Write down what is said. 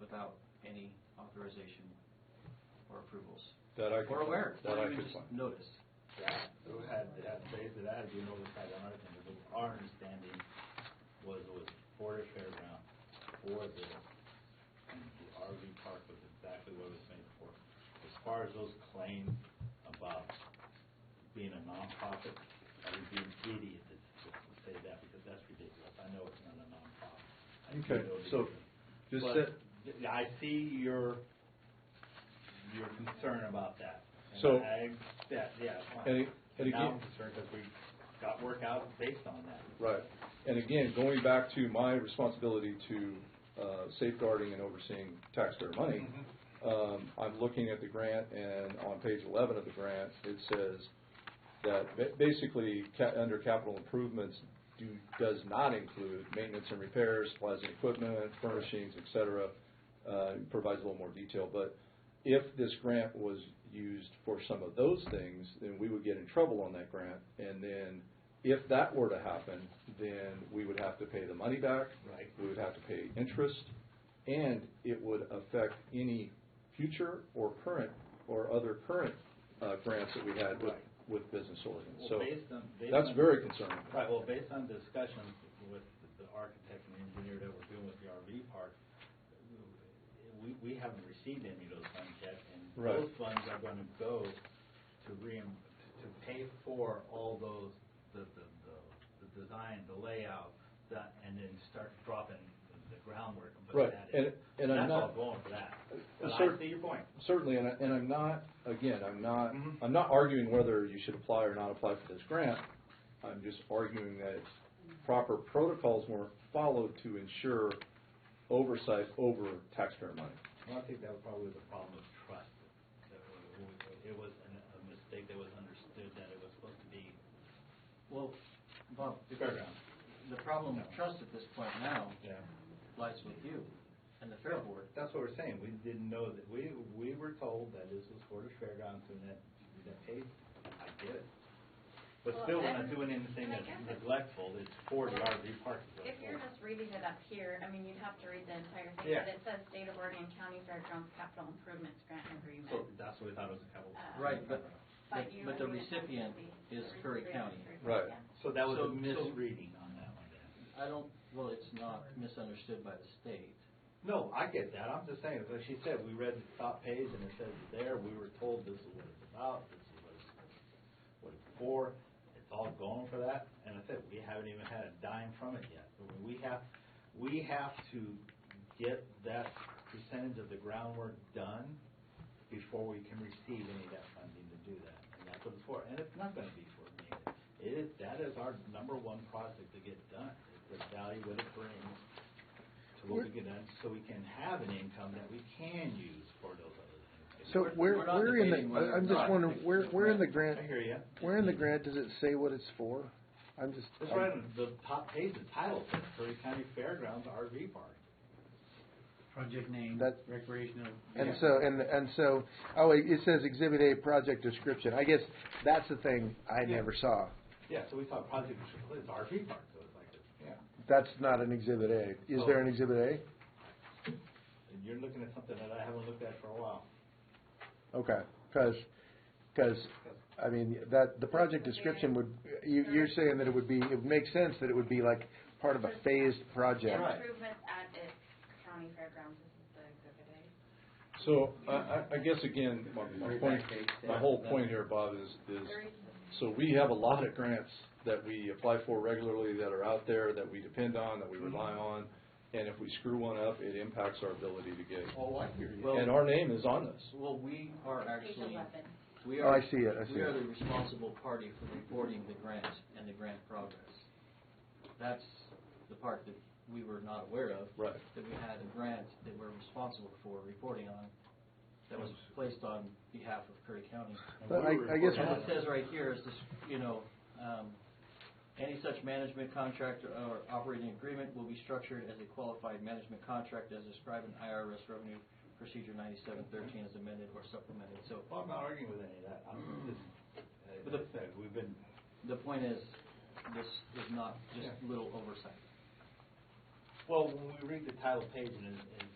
without any authorization or approvals. That I could. Or aware, That or I even could just find. notice. that, who had, had faith that had been oversight on our thing, because our understanding was it was for the fairground, for this, and the RV park was exactly what it was made for. As far as those claims about being a nonprofit, I would be an idiot to, to say that, because that's ridiculous, I know it's not a nonprofit. I do Okay, know the so difference. just But that, th- I see your, your concern about that. And So- I, that, yeah. fine. And- and Now again- I'm concerned because we got work out based on that. right. And again, going back to my responsibility to uh, safeguarding and overseeing taxpayer money, Mm-hmm. um, I'm looking at the grant and on page 11 of the grant, it says that ba- basically, ca- under capital improvements, do, does not include maintenance and repairs, supplies and equipment, furnishings, et cetera. Uh, it Provides a little more detail, but if this grant was used for some of those things, then we would get in trouble on that grant. And then if that were to happen, then we would have to pay the money back. Right. We would have to pay interest, and it would affect any future or current, or other current uh, grants that we had with, Right. with Business Oregon. Well, So based on- based that's on- very concerning. Right, well, based on discussions with the architect and engineer that we're doing with the RV park, we, we haven't received any of those funds yet. And Right. those funds are going to go to reim, to pay for all those, the, the, the- the design, the layout, that, and then start dropping the groundwork. and putting Right, that and- in. and I'm That's all not- Uh, going for that. But Sir- I see your point. Certainly, and, I, and I'm not, again, I'm not, Mm-hmm. I'm not arguing whether you should apply or not apply for this grant. I'm just arguing that proper protocols were followed to ensure oversight over taxpayer money. Well, I think that probably was a problem of trust. That we- It was an- a mistake that was understood that it was supposed to be Well, Bob, because fairground. the problem of trust at this point now Yeah. lies with you and the Fair Board. That's what we're saying. We didn't know that, we, we were told that this was for the fairgrounds and that, that, hey, I get it. But Well, still, we're not and- doing anything and I that's guess it's- neglectful. It's for the RV park. If you're just reading it up here, I mean, you'd have to read the entire thing, Yeah. but it says State of Oregon County Fairgrounds Capital Improvements Grant So Agreement. that's what we thought it was a couple. Uh, Right, but, but you but the would read it recipient up to the- is the Curry recipient County. is- Right. yeah. So that was So- a so- misreading on that one then. I don't, well, it's not misunderstood by the state. No, I get that. I'm just saying, like she said, we read the top page and it says it there, we were told this is what it's about, this is what it's, what it's for. It's all going for that. And I said, we haven't even had a dime from it yet. But We have, we have to get that percentage of the groundwork done before we can receive any of that funding to do that. And that's what it's for. And it's not gonna be for me. It is, that is our number one project to get done, is the value that it brings to what we get done, so we can have an income that we can use for those other things. So We're- where, we're not where in debating the, whether I- I'm or just not wondering, it's where, a where in I the grant, hear you. where in the grant does it say what it's for? I'm just. It's right on the top page, the title says Curry County Fairgrounds RV Park. Project name, That- recreational. And so, and, and so, oh, it it says Exhibit A, project description. I guess that's the thing I never saw. Yeah, so we thought Project Triple is RV Park, so it's like, this. yeah. That's not an Exhibit A. Is there Oh. an Exhibit A? And you're looking at something that I haven't looked at for a while. Okay, because, I mean, that, the project description would, you, you're saying that it would be, it would make sense that it would be like part of a phased project. Right. Improvements at its county fairgrounds, this is the exhibit A. So I, I, I guess again, my, my point, my whole point here, Bob, is, is There is- So we have a lot of grants that we apply for regularly that are out there, that we depend on, that we Mm-hmm. rely on. And if we screw one up, it impacts our ability to get. Oh, I hear Well- And our name is on this. Well, we are Page actually, 11. we Oh, are. I see it, I see We are it. the responsible party for reporting the grant and the grant progress. That's the part that we were not aware of. Right. That we had a grant that we're responsible for reporting on, that was placed on behalf of Curry County. But I, I guess. And it says right here is this, you know, um, any such management contract or operating agreement will be structured as a qualified management contract as described in IRS Revenue Procedure 9713 as amended or supplemented. So Well, I'm not arguing with any of that. I'm just, But as the- I said, we've been, the point is, this is not just Yeah. little oversight. well, when we read the title page and it- it